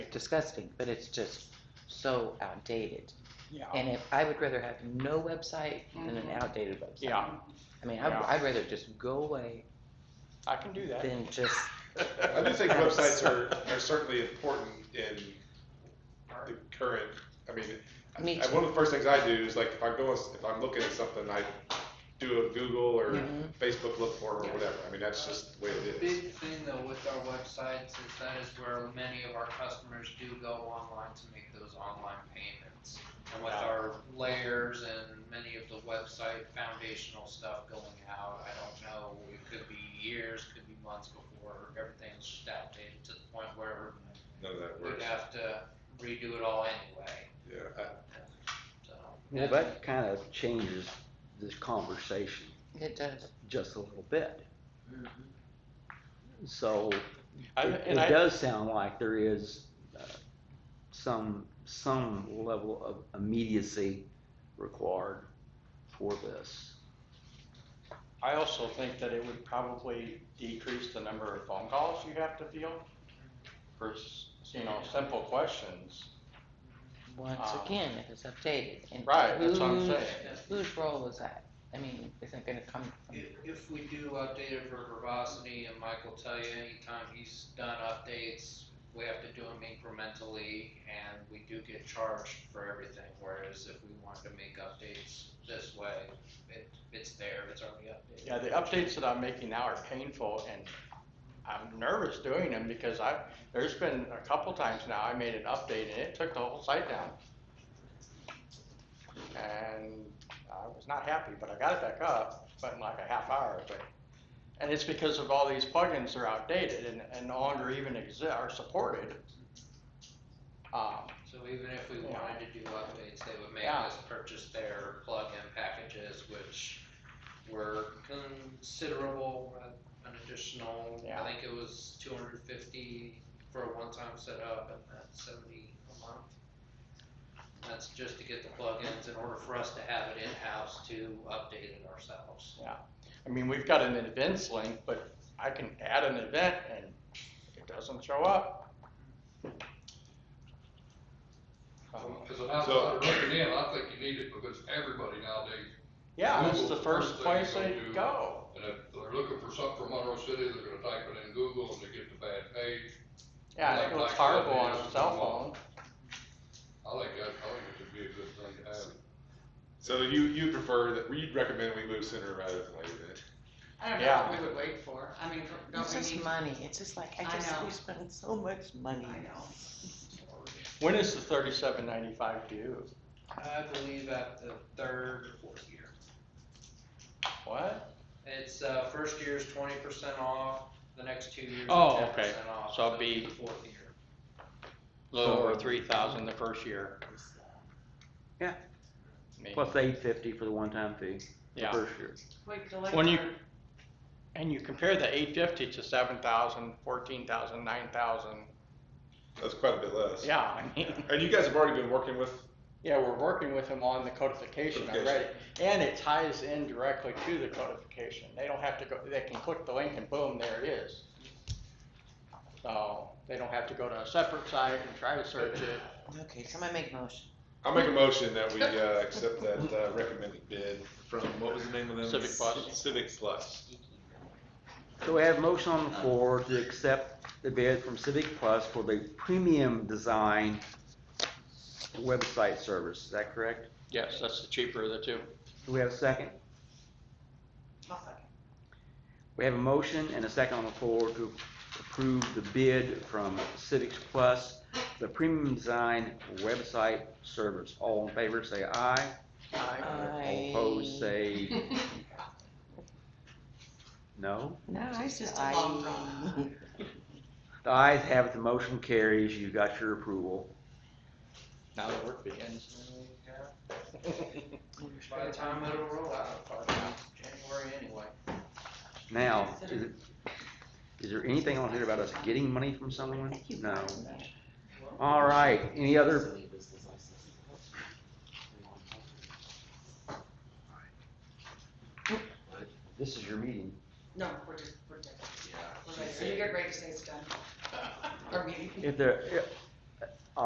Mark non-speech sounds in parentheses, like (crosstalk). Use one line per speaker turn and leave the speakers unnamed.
disgusting, but it's just so outdated.
Yeah,
And if, I would rather have no website than an outdated website.
Mm-hmm. yeah,
I mean, I'd,
Yeah.
I'd rather just go away
I can do that.
than just,
I do think websites are, are certainly important in the current, I mean,
Me
I- one of the first things I do is like, if I'm going, if I'm looking at something, I do a Google or
Mhm.
Facebook look for it or whatever, I mean, that's just the way
The
it is.
big thing though with our websites is that is where many of our customers do go online to make those online payments. And with
Yeah.
our layers and many of the website foundational stuff going out, I don't know, it could be years, could be months before everything's just outdated to the point where
None of that
we'd
works,
have to redo it all anyway,
yeah, I-
so.
Well, that kind of changes this conversation
it does.
just a little bit.
Mm-hmm.
So
I-
it, it
And I,
does sound like there is uh, some, some level of immediacy required for this.
I also think that it would probably decrease the number of phone calls you have to field for, s- you know, simple questions.
Once
Um,
again, if it's updated. And
Right, that's what I'm
whose-
saying.
Whose role is that? I mean, is it gonna come from,
If, if we do update it for verbosity, and Mike will tell you anytime he's done updates, we have to do them incrementally, and we do get charged for everything, whereas if we wanted to make updates this way, it, it's there, it's already updated.
Yeah, the updates that I'm making now are painful and I'm nervous doing them because I, there's been a couple times now I made an update and it took the whole site down. And I was not happy, but I got it back up, but in like a half hour, but, and it's because of all these plugins are outdated and, and no longer even exist, are supported. Um,
So even if we
Yeah.
wanted to do updates, they would make
Yeah.
us purchase their plug-in packages, which were considerable, uh, an additional,
Yeah.
I think it was two hundred fifty for a one-time setup and that's seventy a month. That's just to get the plugins in order for us to have it in-house to update it ourselves.
I mean, we've got an events link, but I can add an event and it doesn't show up. Um,
As an outsider looking in, I think you need it because everybody nowadays,
Yeah, that's the
Google,
first
first thing
place they
you'll do.
go.
and if they're looking for something from Monroe City, they're gonna type it in Google and they get the bad page.
Yeah, and
Like-
it looks
like
horrible on
that
a
is
cell
the
phone.
one. I think that, I think it would be a good thing to have.
So you, you prefer that, you'd recommend we move sooner rather than later then?
I don't know
Yeah.
what we would wait for, I mean, don't
it's
we
just
need,
money, it's just like, I
I
just,
know.
we spend so much money.
I know.
When is the thirty-seven ninety-five due?
I believe at the third or fourth year.
What?
It's, uh, first year's twenty percent off, the next two years
Oh,
are ten
okay.
percent off.
So it'd
it'll
be-
the Fourth year.
A Little over three thousand the first year.
Yeah.
I mean,
Plus eight fifty for the one-time fee the
Yeah,
first year.
we collect
When you-
our-
and you compare the eight fifty to seven thousand, fourteen thousand, nine thousand.
That's quite a bit less.
Yeah, I mean.
And you guys have already been working with,
Yeah, we're working with them on the codification
Codification.
already, and it ties in directly to the codification. They don't have to go, they can click the link and boom, there it is. So, they don't have to go to a separate site and try to search it.
Okay, somebody make a motion.
I'll make a motion that we, uh, accept that, uh, recommended bid from, what was the name of them?
Civic Plus.
Civic Plus.
So we have a motion on the floor to accept the bid from Civic Plus for the premium design website service. Is that correct?
Yes, that's the cheaper of the two.
Do we have a second?
I'll second.
We have a motion and a second on the floor to approve the bid from Civics Plus, the premium design website service. All in favor, say aye. All opposed, say
(laughs)
no.
No, I
It's
just,
just a long
I.
run.
The ayes have it, the motion carries. You got your approval.
Now the work begins.
By the time it'll roll out, probably January anyway.
Now, is it- is there anything on here about us getting money from someone? No. All right, any other? This is your meeting.
No, we're just, we're done. We're ready. Are you get ready to say it's done? Our meeting?
If there, if-